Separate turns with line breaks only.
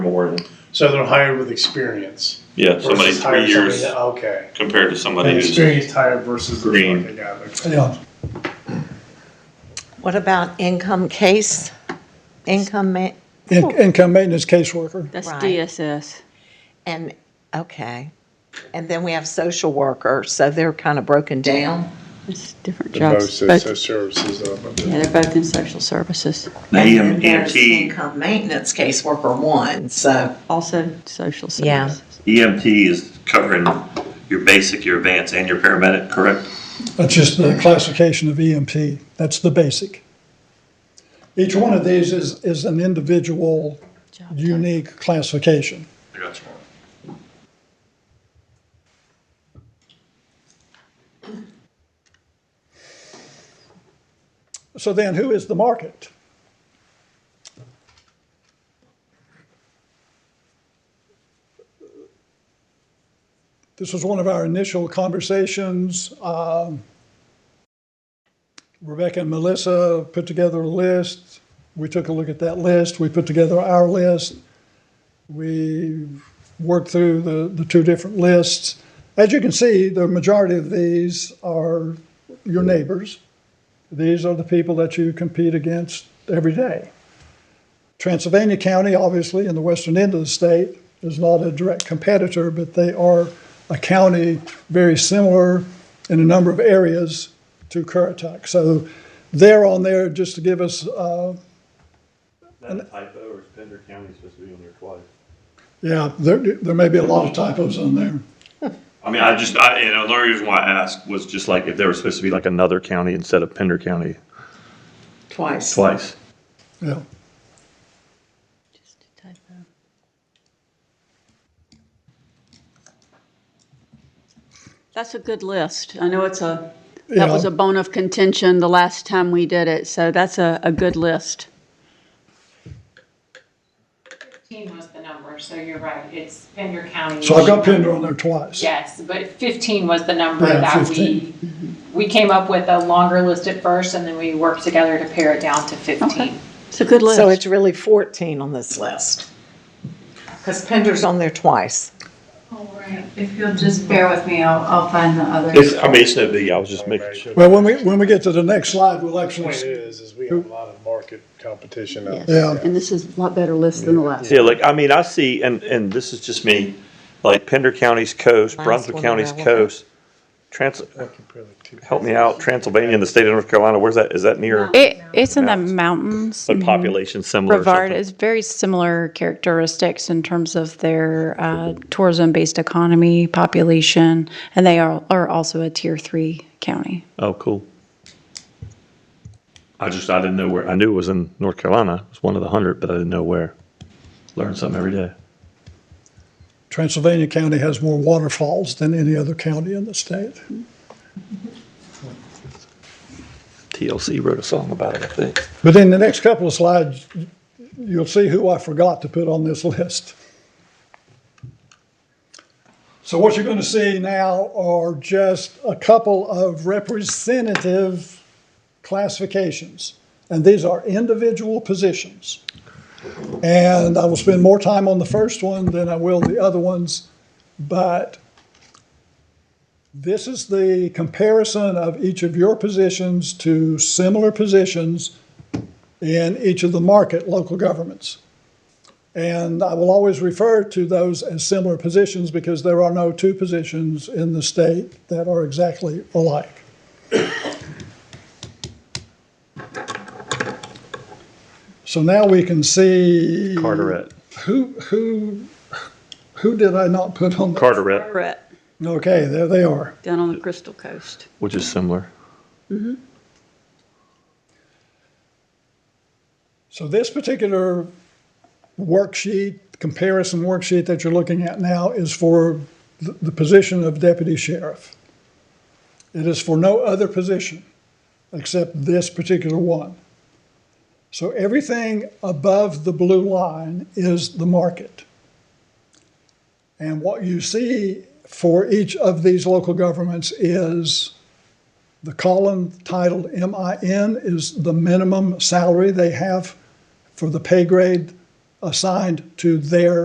more than,
So they're hired with experience.
Yeah, somebody
versus hire
three years
somebody- Okay.
compared to somebody
An
who's
experienced hire versus. the
Green.
fucking guy that-
Yeah,
What about income case? Income, ma-
in- income maintenance caseworker.
That's
Right.
DSS.
and, okay. And then we have social worker, so they're kind of broken down.
It's different
They're both
jobs. Both-
social services, uh, but-
Yeah, they're both in social services.
And then
EM,
there's
EMT,
Income maintenance caseworker one, so.
Also social
Yeah.
services.
EMT E is covering your basic, your advanced, and your paramedic, correct?
That's just the classification of EMT. That's the basic. Each one of these is, is an individual,
Job type.
unique classification.
Gotcha.
So then who is the market? This was one of our initial conversations. Um, Rebecca and Melissa put together a list. We took a look at that list. We put together our list. We worked through the, the two different lists. As you can see, the majority of these are your neighbors. These are the people that you compete against every day. Transylvania County, obviously, in the western end of the state, is not a direct competitor, but they are a county very similar in a number of areas to Currituck. So they're on there just to give us, uh,
That typo, or is Pender County supposed to be on there twice?
yeah, there, there may be a lot of typos on there.
I mean, I just, I, you know, the only reason why I asked was just like if there was supposed to be like another county instead of Pender County
Twice.
twice.
Yeah.
Just a typo. That's a good list. I know it's a, that was
Yeah.
a bone of contention the last time we did it, so that's a, a good list.
15 was the number, so you're right, it's Pender County.
So I've got Pender on there twice.
Yes, but 15 was the number
Yeah,
that we, we came up with a longer list at first, and then we worked together to pare it down to 15.
It's a good list.
So it's really 14 on this list. Because Pender's on there twice.
All right, if you'll just bear with me, I'll, I'll find the others.
It's, I mean, it's no biggie. I was just making sure.
Well, when we, when we get to the next slide, we'll actually,
Point is, is we have a lot of market competition out
Yes.
there.
yeah.
And this is a lot better list than the last.
Yeah, like, I mean, I see, and, and this is just me, like Pender County's coast, Brunswick
one
County's
level.
coast, Trans, help me out, Transylvania and the state of North Carolina, where's that, is that near?
It, it's in the mountains.
But population similar or
Brevard
something?
is very similar characteristics in terms of their uh, tourism-based economy, population, and they are, are also a tier three county.
Oh, cool. I just, I didn't know where, I knew it was in North Carolina, it was one of the hundred, but I didn't know where. Learn something every day.
Transylvania County has more waterfalls than any other county in the state.
TLC wrote a song about it, I think.
But in the next couple of slides, you'll see who I forgot to put on this list. So what you're going to see now are just a couple of representative classifications. And these are individual positions. And I will spend more time on the first one than I will the other ones, but this is the comparison of each of your positions to similar positions in each of the market local governments. And I will always refer to those as similar positions because there are no two positions in the state that are exactly alike. So now we can see
Carteret,
who who who did I not put on?
Carteret,
Brett,
Okay, there they are.
down on the Crystal Coast.
which is similar.
So this particular worksheet, comparison worksheet that you're looking at now is for the the position of deputy sheriff. It is for no other position except this particular one. So everything above the blue line is the market. And what you see for each of these local governments is the column titled MIN is the minimum salary they have for the pay grade assigned to their